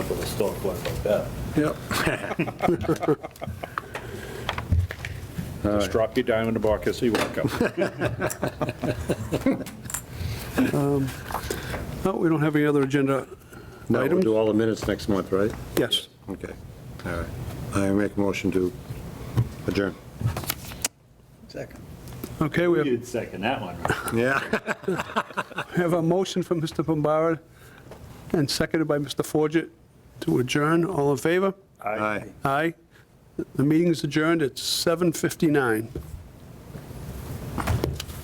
with a stone blunt like that. Yep. Just drop your dime in the bucket as you walk up. No, we don't have any other agenda No, we'll items? do all the minutes next month, right? Yes. Okay, all right. I make a motion to adjourn. Second. Okay, we have- You'd second that one, right? Yeah. we have a motion from Mr. Bombara and seconded by Mr. Forget to adjourn. All in favor? Aye. Aye. The meeting is adjourned at 7:59.